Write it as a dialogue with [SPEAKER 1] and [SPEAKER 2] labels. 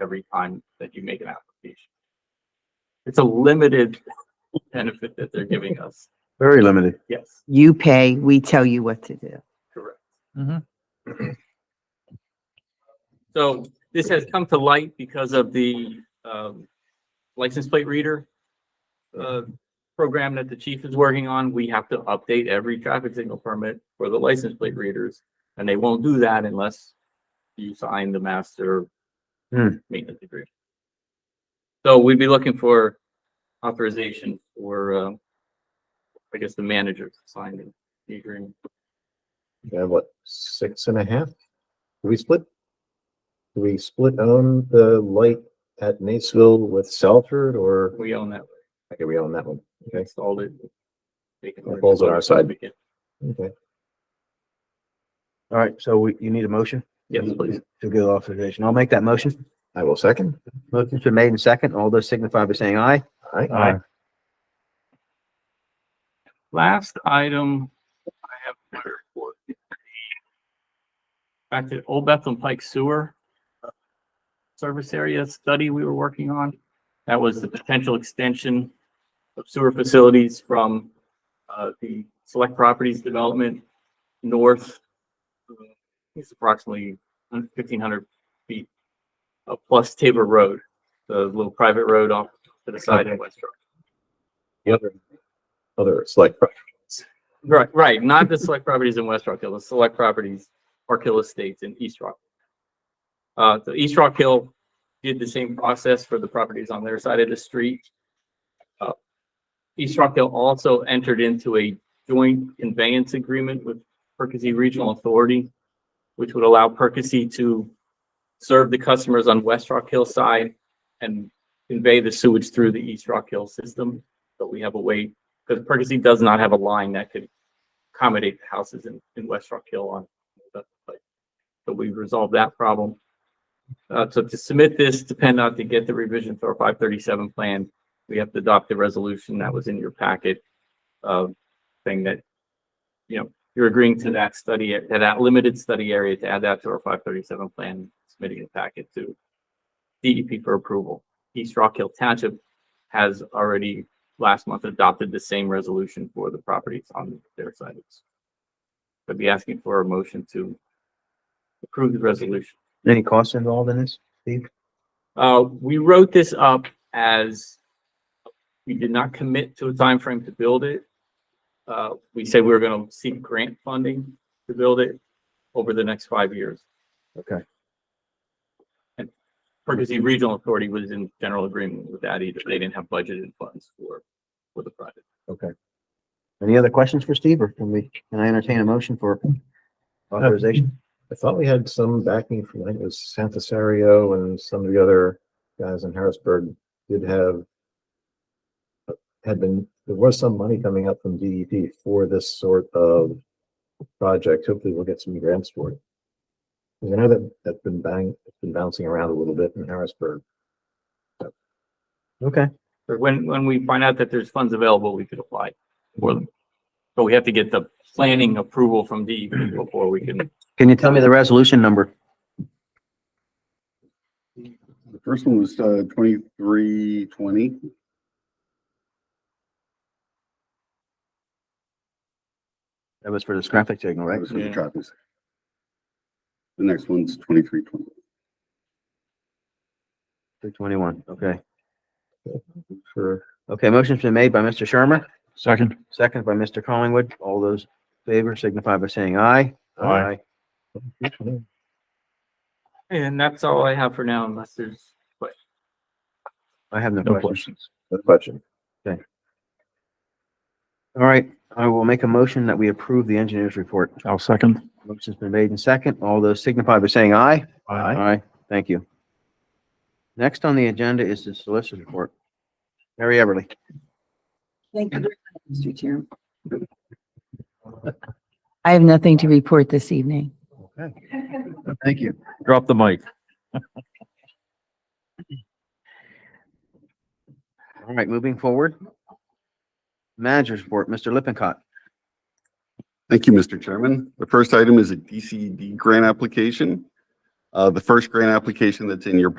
[SPEAKER 1] every time that you make an application. It's a limited benefit that they're giving us.
[SPEAKER 2] Very limited.
[SPEAKER 1] Yes,
[SPEAKER 3] You pay, we tell you what to do.
[SPEAKER 1] correct.
[SPEAKER 4] Mhm.
[SPEAKER 1] So this has come to light because of the um, license plate reader uh, program that the chief is working on. We have to update every traffic signal permit for the license plate readers. And they won't do that unless you sign the master
[SPEAKER 2] Hmm.
[SPEAKER 1] maintenance agreement. So we'd be looking for authorization for, uh, I guess, the manager to sign the agreement.
[SPEAKER 2] We have what, six and a half? Do we split? Do we split own the light at Naysville with Salford or,
[SPEAKER 1] We own that.
[SPEAKER 2] okay, we own that one. Okay.
[SPEAKER 1] Installed it. Taken
[SPEAKER 2] That falls on our side.
[SPEAKER 1] over.
[SPEAKER 2] Okay. All right, so we, you need a motion?
[SPEAKER 1] Yes, please.
[SPEAKER 2] To give authorization. I'll make that motion. I will second.
[SPEAKER 4] Motion's been made and second. All those signify by saying aye.
[SPEAKER 2] Aye.
[SPEAKER 4] Aye.
[SPEAKER 1] Last item, I have my report. Back to Old Bethlehem Pike Sewer uh, Service Area Study we were working on. That was the potential extension of sewer facilities from uh, the Select Properties Development north. uh, It's approximately fifteen hundred feet uh, plus Tabor Road, the little private road off to the side in West Shore.
[SPEAKER 2] The other, other select, pro-
[SPEAKER 1] Right, right, not the select properties in West Rock Hill, the select properties, Park Hill Estates in East Rock. Uh, so East Rock Hill did the same process for the properties on their side of the street. Uh, East Rock Hill also entered into a joint conveyance agreement with Percy Regional Authority, which would allow Percy to serve the customers on West Rock Hill side and convey the sewage through the East Rock Hill system. But we have a way, because Percy does not have a line that could accommodate the houses in, in West Rock Hill on. that site. So we resolved that problem. Uh, so to submit this, depend on to get the revision to our five thirty-seven plan, we have to adopt the resolution that was in your packet. Uh, saying that, you know, you're agreeing to that study, to that limited study area to add that to our five thirty-seven plan, submitting the packet to DEP for approval. East Rock Hill Township has already last month adopted the same resolution for the properties on their side. I'd be asking for a motion to approve the resolution.
[SPEAKER 4] Any costs involved in this?
[SPEAKER 1] Uh, we wrote this up as we did not commit to a time frame to build it. Uh, we said we were gonna seek grant funding to build it over the next five years.
[SPEAKER 2] Okay.
[SPEAKER 1] And Percy Regional Authority was in general agreement with that either. They didn't have budgeted funds for, for the project.
[SPEAKER 4] Any other questions for Steve or can we, can I entertain a motion for authorization?
[SPEAKER 2] I thought we had some backing from, I think it was Santisario and some of the other guys in Harrisburg did have had been, there was some money coming up from DEP for this sort of project. Hopefully we'll get some grants for it. 'Cause I know that that's been bang, it's been bouncing around a little bit in Harrisburg.
[SPEAKER 4] Okay,
[SPEAKER 1] Or when, when we find out that there's funds available, we could apply for them. But we have to get the planning approval from DEP before we can.
[SPEAKER 4] can you tell me the resolution number?
[SPEAKER 5] The first one was uh twenty-three twenty.
[SPEAKER 4] That was for the traffic signal,
[SPEAKER 5] That
[SPEAKER 4] right?
[SPEAKER 5] was for the
[SPEAKER 1] Yeah.
[SPEAKER 5] traffic. signal. The next one's twenty-three twenty.
[SPEAKER 4] Three twenty-one, okay.
[SPEAKER 2] Sure.
[SPEAKER 4] Okay, motion's been made by Mr. Shermer. Second. Second by Mr. Collingwood. All those in favor signify by saying aye. Aye.
[SPEAKER 1] And that's all I have for now unless there's
[SPEAKER 4] I have no
[SPEAKER 1] no questions.
[SPEAKER 4] questions.
[SPEAKER 2] No question.
[SPEAKER 4] All right, I will make a motion that we approve the engineer's report.
[SPEAKER 6] I'll second.
[SPEAKER 4] Motion's been made and second. All those signify by saying aye.
[SPEAKER 2] Aye.
[SPEAKER 4] Aye, thank you. Next on the agenda is the solicitor's report. Mary Everly.
[SPEAKER 3] Thank you, Mr. Chairman. I have nothing to report this evening.
[SPEAKER 4] Thank you.
[SPEAKER 6] Drop the mic.
[SPEAKER 4] All right, moving forward. Manager's report, Mr. Lippincott.
[SPEAKER 5] Thank you, Mr. Chairman. The first item is a DCD grant application. Uh, the first grant application that's in your